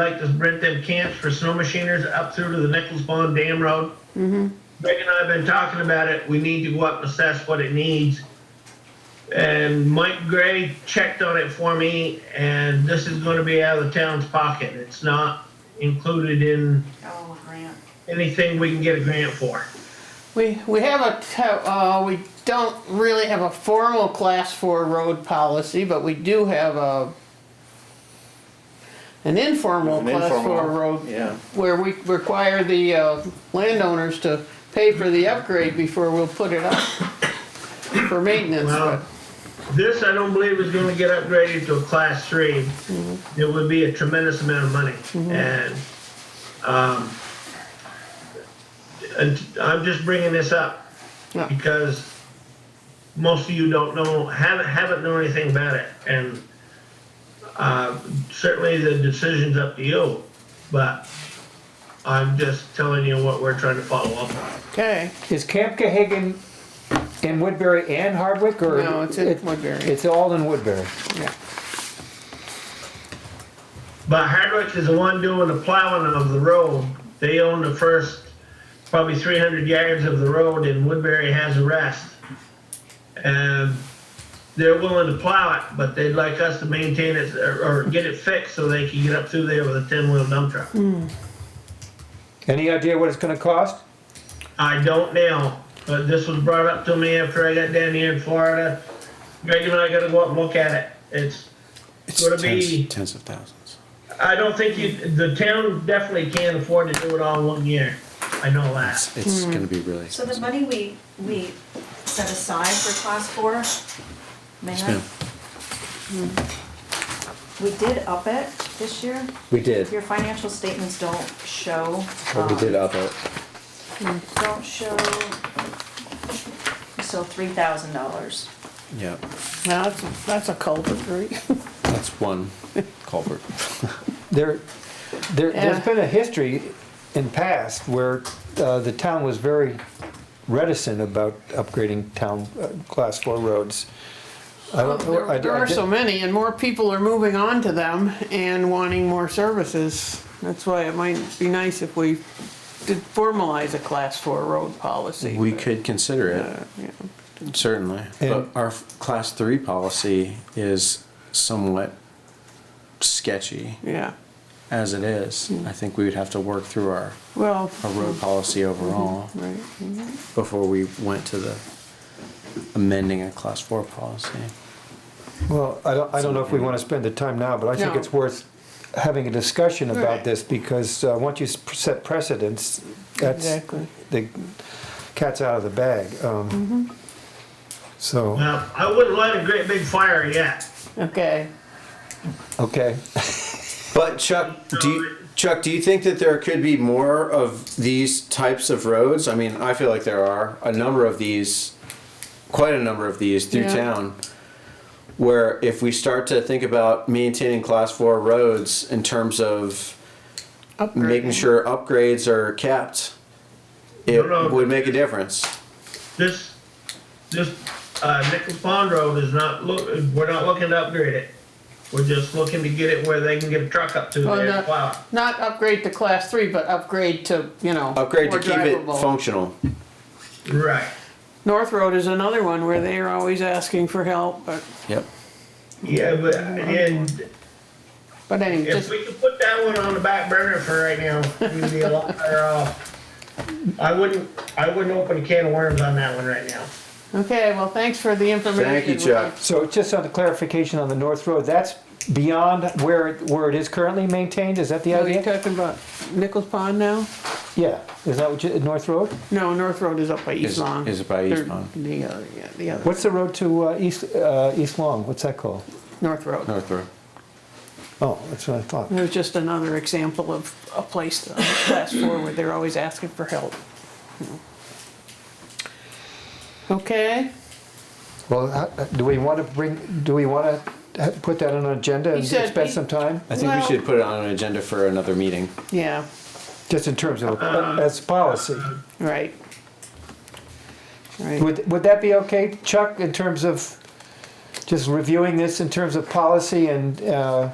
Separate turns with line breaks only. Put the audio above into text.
I'd like to rent them camps for snow machiners up through to the Nichols Pond Dam Road. Greg and I have been talking about it. We need to go up and assess what it needs. And Mike Gray checked on it for me, and this is gonna be out of the town's pocket. It's not included in
Oh, a grant.
anything we can get a grant for.
We, we have a, t- uh, we don't really have a formal class four road policy, but we do have a, an informal
An
class four
informal,
road,
Yeah,
where we require the, uh, landowners to pay for the upgrade before we'll put it up for maintenance,
Well,
but,
This, I don't believe is gonna get upgraded to a class three. It would be a tremendous amount of money and, um, and I'm just bringing this up
Yeah.
because most of you don't know, haven't, haven't known anything about it and, uh, certainly the decision's up to you, but I'm just telling you what we're trying to follow up on.
okay.
Is Camp Cahagan in Woodbury and Hardwick, or?
No, it's in
it-
Woodbury.
It's all in Woodbury.
Yeah.
But Hardwick is the one doing the plowing of the road. They own the first probably 300 yards of the road, and Woodbury has the rest. And they're willing to plow it, but they'd like us to maintain it or, or get it fixed so they can get up through there with a 10 wheel dump truck.
Any idea what it's gonna cost?
I don't now, but this was brought up to me after I got down here in Florida. Greg and I got to go up and look at it. It's
It's
Gonna
tens,
be-
tens of thousands.
I don't think you, the town definitely can't afford to do it all in one year. I know that.
It's, it's
Hmm.
going to be really.
So the money we, we set aside for class four, may
Yes,
I?
ma'am.
Hmm. We did up it this year.
We did,
Your financial statements don't show.
Well, we
um,
did up it.
Don't show, so three thousand dollars.
Yeah,
Now, that's, that's a culvert, right?
that's one culvert.
There, there,
Yeah.
there's been a history in past where, uh, the town was very reticent about upgrading town, uh, class four roads. I don't,
There
I, I
there are so
didn't-
many, and more people are moving on to them and wanting more services. That's why it might be nice if we did formalize a class four road policy.
We could consider
Uh,
it,
yeah.
certainly. But
And-
our f- class three policy is somewhat sketchy
Yeah,
as it is.
Hmm.
I think we would have to work through our,
well,
our road policy overall
right,
before we went to the amending a class four policy.
Well, I don't, I don't know if we wanna spend the time now, but I think
No.
it's worth having a discussion
Right.
about this, because, uh, once you s- set precedents, that's,
exactly.
the cat's out of the bag. Um, so,
Well, I wouldn't light a great big fire yet.
Okay,
okay.
but Chuck, do you, Chuck, do you think that there could be more of these types of roads? I mean, I feel like there are a number of these, quite a number of these through
Yeah.
town. Where if we start to think about maintaining class four roads in terms of making
upgrading.
sure upgrades are kept, it
No, no.
would make a difference.
This, this, uh, Nichols Pond Road is not look, we're not looking to upgrade it. We're just looking to get it where they can get a truck up to
Well,
there and
not-
plow. it.
Not upgrade to class three, but upgrade to, you know.
Upgrade to
more
keep it
drivable.
functional.
Right.
North Road is another one where they are always asking for help, but,
Yep.
Yeah, but, and
but anyway,
if
just,
we could put that one on the back burner for right now, we'd be a lot better off. I wouldn't, I wouldn't open a can of worms on that one right now.
okay, well, thanks for the information.
Thank you, Chuck.
So just on the clarification on the North Road, that's beyond where, it- where it is currently maintained, is that the
Are you
idea?
talking about Nichols Pond now?
Yeah, is that what you, North Road?
No, North Road is up by East
Is-
Long.
is by East
They're-
Long.
The other, yeah, the other,
What's the road to, uh, East, uh, East Long, what's that called?
North Road.
North Road.
Oh, that's what I thought.
It was just another example of a place on the class four where they're always asking for help. Okay,
Well, how- do we wanna bring, do we wanna ha- put that on an agenda and
He said
spend
he-
some time?
I think we
Well-
should put it on an agenda for another meeting.
yeah,
Just in terms of, uh, as policy.
right. Right,
Would, would that be okay, Chuck, in terms of just reviewing this in terms of policy and, uh,